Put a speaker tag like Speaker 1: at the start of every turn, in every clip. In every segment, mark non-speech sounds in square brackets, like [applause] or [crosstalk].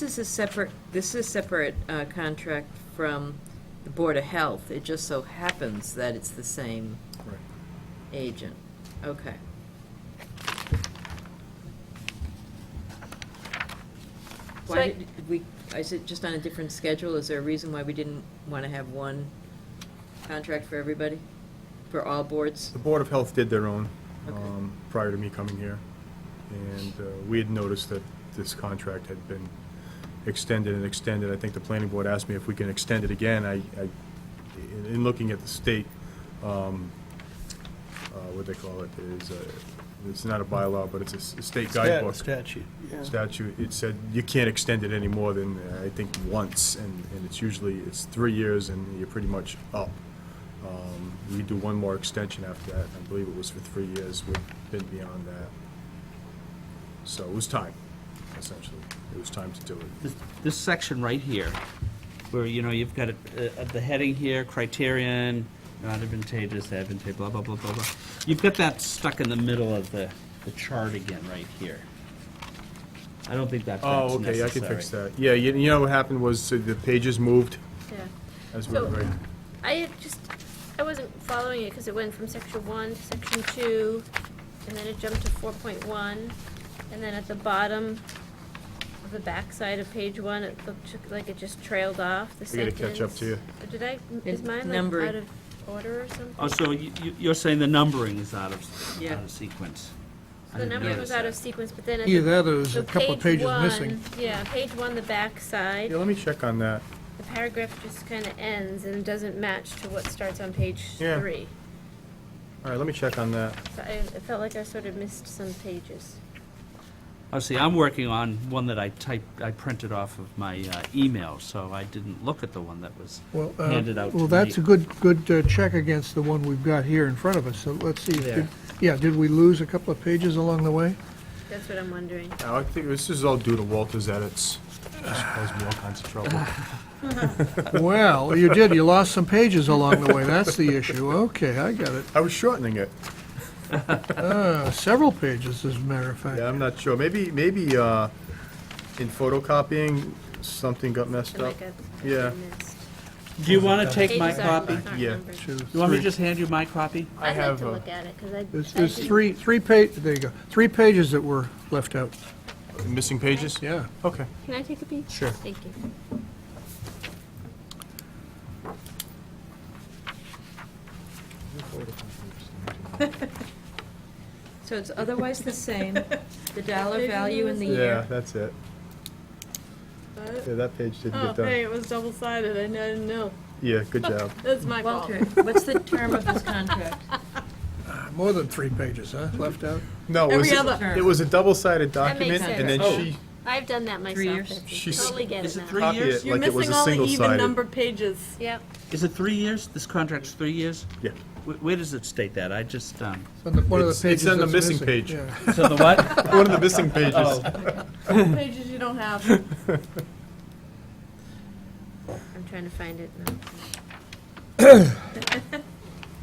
Speaker 1: This is a separate, this is a separate uh, contract from the Board of Health. It just so happens that it's the same
Speaker 2: Right.
Speaker 1: agent. Okay.
Speaker 3: So
Speaker 1: Why
Speaker 3: I-
Speaker 1: did did we, is it just on a different schedule? Is there a reason why we didn't want to have one contract for everybody? For all boards?
Speaker 2: The Board of Health did their own
Speaker 1: Okay.
Speaker 2: um, prior to me coming here, and uh, we had noticed that this contract had been extended and extended. I think the planning board asked me if we can extend it again. I, I- in in looking at the state, um, uh, what they call it, is, uh, it's not a bylaw, but it's a s- a state guidebook.
Speaker 4: Statute.
Speaker 2: statute, it said you can't extend it any more than, uh, I think, once, and, and it's usually, it's three years and you're pretty much up. Um, We do one more extension after that, and I believe it was for three years, we've been beyond that. So it was time, essentially, it was time to do it.
Speaker 4: This- This section right here, where, you know, you've got uh, uh, the heading here, criterion, not advantageous, advantageous, blah, blah, blah, blah, blah. You've got that stuck in the middle of the, the chart again, right here. I don't think that that's
Speaker 2: Oh,
Speaker 4: necessary.
Speaker 2: okay, I can fix that. Yeah, you, you know what happened was uh, the pages moved
Speaker 3: Yeah.
Speaker 2: as we were,
Speaker 3: So-
Speaker 2: writing.
Speaker 3: I had just, I wasn't following it because it went from section one to section two, and then it jumped to four point one, and then at the bottom of the backside of page one, it looked ju- like it just trailed off the
Speaker 2: We gotta
Speaker 3: sentence.
Speaker 2: catch up to you.
Speaker 3: Or Did I,
Speaker 1: It's
Speaker 3: is mine like
Speaker 1: numbered.
Speaker 3: out of order or something?
Speaker 4: Oh, so you, you- you're saying the numbering is out of,
Speaker 1: Yeah.
Speaker 4: out of sequence? I
Speaker 3: The
Speaker 4: didn't
Speaker 3: number
Speaker 4: notice
Speaker 3: was out
Speaker 4: that.
Speaker 3: of sequence, but then at the.
Speaker 5: Either that or there's
Speaker 3: so
Speaker 5: a couple of
Speaker 3: page
Speaker 5: pages missing.
Speaker 3: one- Yeah, page one, the backside,
Speaker 2: yeah, let me check on that.
Speaker 3: the paragraph just kind of ends and doesn't match to what starts on page
Speaker 2: Yeah.
Speaker 3: three.
Speaker 2: All right, let me check on that.
Speaker 3: So I, I felt like I sort of missed some pages.
Speaker 4: Oh, see, I'm working on one that I typed, I printed off of my uh, email, so I didn't look at the one that was
Speaker 5: Well, uh,
Speaker 4: handed out to me.
Speaker 5: Well, that's a good, good uh, check against the one we've got here in front of us, so let's see.
Speaker 4: There.
Speaker 5: did- Yeah, did we lose a couple of pages along the way?
Speaker 3: That's what I'm wondering.
Speaker 2: Now, I think this is all due to Walter's edits. Just caused me all kinds of trouble.
Speaker 5: Well, you did, you lost some pages along the way, that's the issue, okay, I got it.
Speaker 2: I was shortening it.
Speaker 5: Uh, Several pages, as a matter of fact.
Speaker 2: Yeah, I'm not sure. Maybe, maybe, uh, in photocopying, something got messed
Speaker 3: Something
Speaker 2: up.
Speaker 3: like I- I
Speaker 2: Yeah.
Speaker 3: missed.
Speaker 4: Do you want to take my
Speaker 3: Pages
Speaker 4: copy?
Speaker 3: aren't, aren't
Speaker 2: Yeah.
Speaker 3: numbered.
Speaker 5: Two,
Speaker 4: You want me to
Speaker 5: three.
Speaker 4: just hand you my copy?
Speaker 2: I
Speaker 3: I'd like
Speaker 2: have,
Speaker 3: to
Speaker 2: uh,
Speaker 3: look at it, because I.
Speaker 5: There's,
Speaker 3: I
Speaker 5: there's
Speaker 3: didn't-
Speaker 5: three, three pa, there you go, three pages that were left out,
Speaker 2: Missing pages?
Speaker 5: yeah.
Speaker 2: Okay.
Speaker 3: Can I take a peek?
Speaker 2: Sure.
Speaker 3: Thank you.
Speaker 1: So it's otherwise the same, the [laughs] dollar value in the
Speaker 2: Yeah,
Speaker 1: year.
Speaker 2: that's it.
Speaker 6: But-
Speaker 2: Yeah, that page didn't
Speaker 6: Oh,
Speaker 2: get
Speaker 6: hey,
Speaker 2: done.
Speaker 6: it was double sided. I didn't know.
Speaker 2: Yeah, good
Speaker 6: [laughs]
Speaker 2: job.
Speaker 6: That's my fault.
Speaker 1: Walter, what's the term of [laughs] this contract?
Speaker 5: More than three pages, huh, left out?
Speaker 2: No, it was,
Speaker 6: Every other-
Speaker 2: it was a double-sided
Speaker 3: That makes
Speaker 2: document, and then
Speaker 3: sense.
Speaker 2: she,
Speaker 3: I've done that myself,
Speaker 1: years?
Speaker 3: Betsy.
Speaker 2: She's-
Speaker 3: Totally get
Speaker 4: Is
Speaker 3: it
Speaker 4: it three
Speaker 3: now.
Speaker 2: Copy
Speaker 4: years?
Speaker 2: Like
Speaker 6: You're
Speaker 2: it was
Speaker 6: missing
Speaker 2: a
Speaker 6: all the even
Speaker 2: single-sided.
Speaker 6: numbered
Speaker 1: [laughs]
Speaker 6: pages.
Speaker 3: Yep,
Speaker 4: Is it three years? This contract's three years?
Speaker 2: yeah.
Speaker 4: Wh- Where does it state that? I just, um,
Speaker 5: On the- One of the
Speaker 2: It's- it's
Speaker 5: pages
Speaker 2: on the
Speaker 5: that's
Speaker 2: missing
Speaker 5: missing.
Speaker 2: page.
Speaker 5: yeah.
Speaker 4: so the
Speaker 5: [laughs]
Speaker 4: what?
Speaker 2: One of the [laughs] missing pages.
Speaker 6: pages you don't have.
Speaker 3: I'm trying to find it now.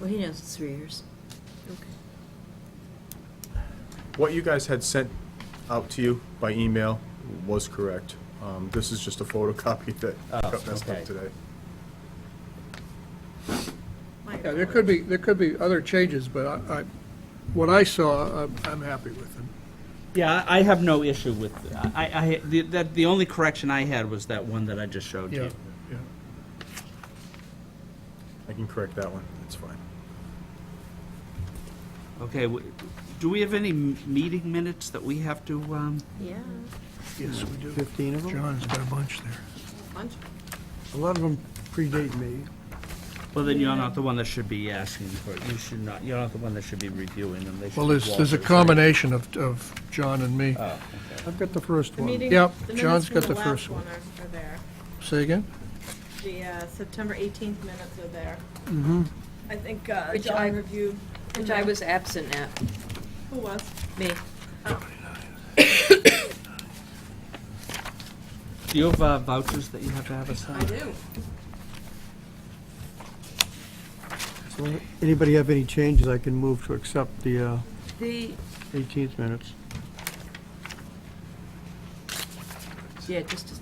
Speaker 1: Well, he knows it's three years.
Speaker 2: What you guys had sent out to you by email was correct. Um, this is just a photocopy that got messed
Speaker 4: okay.
Speaker 2: up today.
Speaker 5: Yeah, there could be, there could be other changes, but I, I- what I saw, I'm- I'm happy with them.
Speaker 4: Yeah, I I have no issue with, I, I, the- that, the only correction I had was that one that I just showed
Speaker 5: Yeah,
Speaker 4: you.
Speaker 5: yeah.
Speaker 2: I can correct that one, that's fine.
Speaker 4: Okay, w- do we have any m- meeting minutes that we have to, um,
Speaker 3: Yeah.
Speaker 5: Yes, we do.
Speaker 7: 15 of them?
Speaker 5: John's got a bunch there.
Speaker 6: Bunch.
Speaker 7: A lot of them predate me.
Speaker 4: well, then you're not the one that should be asking for it. You should not, you're not the one that should be reviewing them. They should
Speaker 5: Well,
Speaker 4: be
Speaker 5: there's, there's a
Speaker 4: Walter's, right?
Speaker 5: combination of, of John and me.
Speaker 7: I've got the first
Speaker 6: The
Speaker 7: one.
Speaker 6: meeting,
Speaker 5: Yep,
Speaker 6: the
Speaker 5: John's
Speaker 6: minutes from
Speaker 5: got the
Speaker 6: the
Speaker 5: first
Speaker 6: last
Speaker 5: one.
Speaker 6: one are, are there.
Speaker 5: Say again?
Speaker 6: The uh, September 18th minutes are there.
Speaker 5: Mm-hmm.
Speaker 6: I think uh,
Speaker 1: Which
Speaker 6: John
Speaker 1: I-
Speaker 6: reviewed.
Speaker 1: Which I was absent at,
Speaker 6: Who was?
Speaker 1: me.
Speaker 4: Do you have uh, vouchers that you have to have us sign?
Speaker 6: I do.
Speaker 7: So, Anybody have any changes? I can move to accept the uh,
Speaker 1: The,
Speaker 7: 18th minutes.
Speaker 1: yeah, just